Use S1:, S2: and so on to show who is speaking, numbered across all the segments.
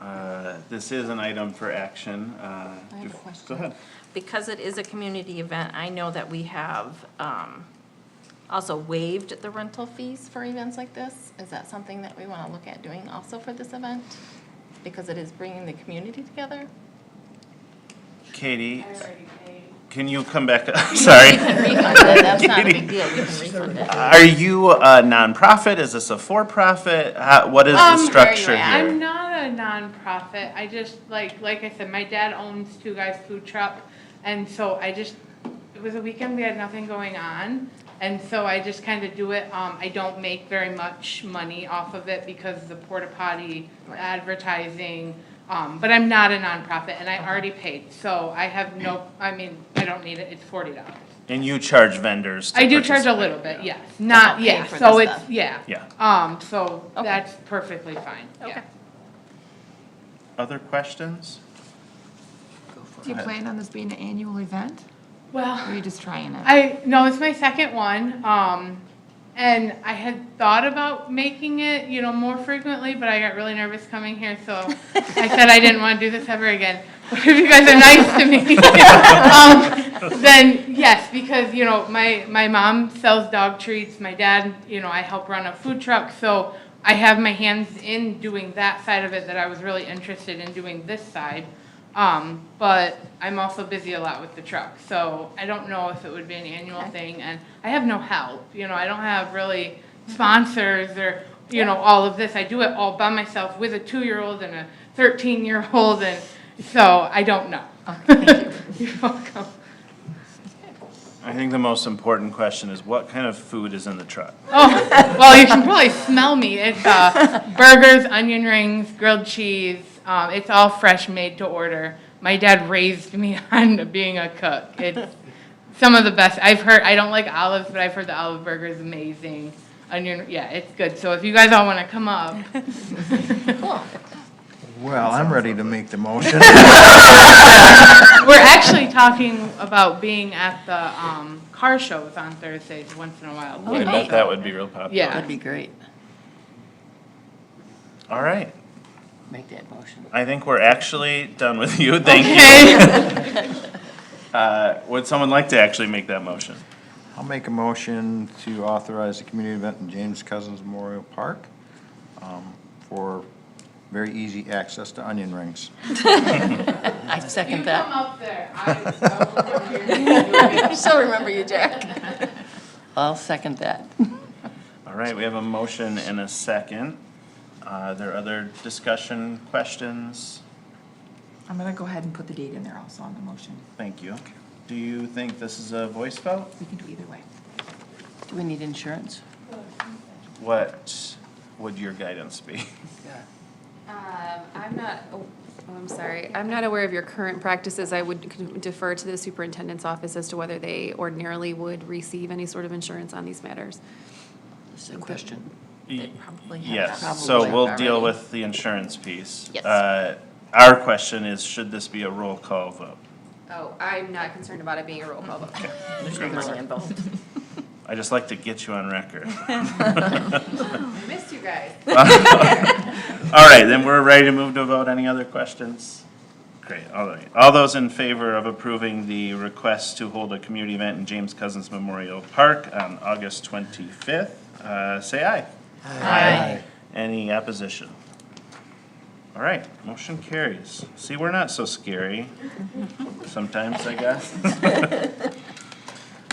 S1: Uh, this is an item for action. uh,
S2: I have a
S1: do-
S2: question.
S1: Go ahead.
S2: Because it is a community event, I know that we have um, also waived the rental fees for events like this. Is that something that we want to look at doing also for this event? Because it is bringing the community together?
S1: Katie, can you come back? I'm Sorry.
S2: Refund it, that's not a big deal, we can refund it.
S1: Are you a nonprofit? Is this a for-profit? How- What is the
S3: Um,
S1: structure
S2: very-
S3: I'm
S1: here?
S3: not a nonprofit. I just like like I said, my dad owns Two Guys Food Truck, and so I just it was a weekend we had nothing going on, and so I just kind of do it. Um, I don't make very much money off of it because the porta potty advertising. Um, but I'm not a nonprofit, and I
S2: Uh-huh.
S3: already paid, so I have no. I mean, I don't need it. It's forty dollars.
S1: And you charge vendors to
S3: I do charge a
S1: participate.
S3: little bit, yes.
S2: help
S3: Not
S2: pay
S3: yeah.
S2: for
S3: So
S2: the
S3: it's
S2: stuff.
S3: yeah.
S1: Yeah.
S3: Um. So
S2: Okay.
S3: that's perfectly fine.
S2: Okay.
S3: Yeah.
S1: Other questions?
S4: Do you plan on this being an annual event,
S3: Well.
S4: or are you just trying it?
S3: I no, it's my second one. Um, and I had thought about making it, you know, more frequently, but I got really nervous coming here, so I said I didn't want to do this ever again. But if you guys are nice to me, um, then yes, because you know, my my mom sells dog treats. My dad, you know, I help run a food truck, so I have my hands in doing that side of it that I was really interested in doing this side. Um, but I'm also busy a lot with the truck, so I don't know if it would be an annual thing, and I have no help, you know, I don't have really sponsors or, you know, all of this, I do it all by myself with a two-year-old and a thirteen-year-old, and so I don't know.
S4: Okay, thank you.
S3: You're welcome.
S1: I think the most important question is what kind of food is in the truck?
S3: Oh, well, you can probably smell me, it's, uh, burgers, onion rings, grilled cheese, um, it's all fresh, made to order. My dad raised me on being a cook, it's, Some of the best. I've heard, I don't like olives, but I've heard the olive burger is amazing. Onion, yeah, it's good. So if you guys all want to come up,
S5: Well, I'm ready to make the motion.
S3: we're actually talking about being at the um, car shows on Thursdays once in a
S6: Oh,
S3: while.
S1: I bet
S2: nice.
S1: that would be real popular.
S3: Yeah.
S6: be great.
S1: All right.
S6: Make that motion.
S1: I think we're actually done with you. Thank you.
S3: Okay.
S1: Uh, Would someone like to actually make that motion?
S5: I'll make a motion to authorize a community event in James Cousins Memorial Park um, for very easy access to onion rings.
S6: I
S3: You
S6: second
S3: come
S6: that.
S3: up there. I-
S2: I still remember you, Jack.
S6: I'll second that.
S1: All right, we have a motion and a second. Uh, Are there other discussion, questions?
S4: I'm gonna go ahead and put the date in there also on the motion.
S1: Thank you. Do you think this is a voice vote?
S4: We can do either way.
S6: Do we need insurance?
S1: What would your guidance be?
S7: Um, I'm not, oh, I'm sorry, I'm not aware of your current practices. I would defer to the superintendent's office as to whether they ordinarily would receive any sort of insurance on these matters.
S6: This is a question.
S1: Y-
S4: probably have that
S1: Yes, so
S4: probably
S1: we'll deal
S4: already.
S1: with the insurance piece.
S2: Yes.
S1: Uh, Our question is, should this be a roll call vote?
S7: Oh, I'm not concerned about it being a roll call vote.
S6: There's no money involved.
S1: I just like to get you on record.
S7: Missed you guys.
S1: All right, then we're ready to move to a vote. Any other questions? Great, all right. All those in favor of approving the request to hold a community event in James Cousins Memorial Park on August 25th, uh, say aye. Aye. Any opposition? All right, motion carries. See, we're not so scary sometimes, I guess.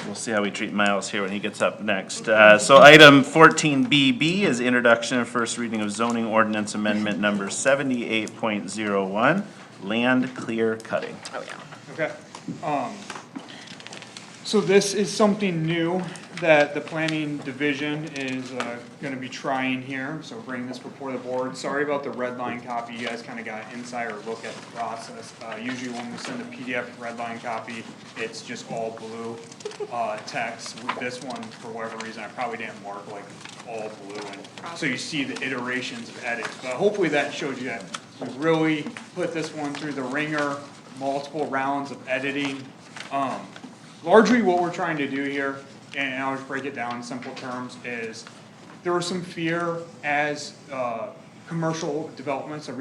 S1: We'll see how we treat Miles here when he gets up next. Uh, So item fourteen BB is introduction and first reading of zoning ordinance amendment number seventy-eight point zero one, land clear cutting.
S8: Okay. Um, So this is something new that the planning division is uh, gonna be trying here, so bringing this before the board. Sorry about the red line copy, you guys kinda got an insider look at the process. Uh, Usually when we send a PDF red line copy, it's just all blue uh, text. With this one, for whatever reason, I probably didn't mark like all blue, and so you see the iterations of edits. But hopefully that showed you that we really put this one through the ringer, multiple rounds of editing. Um, largely what we're trying to do here, and I'll just break it down in simple terms, is there was some fear as, uh, commercial developments are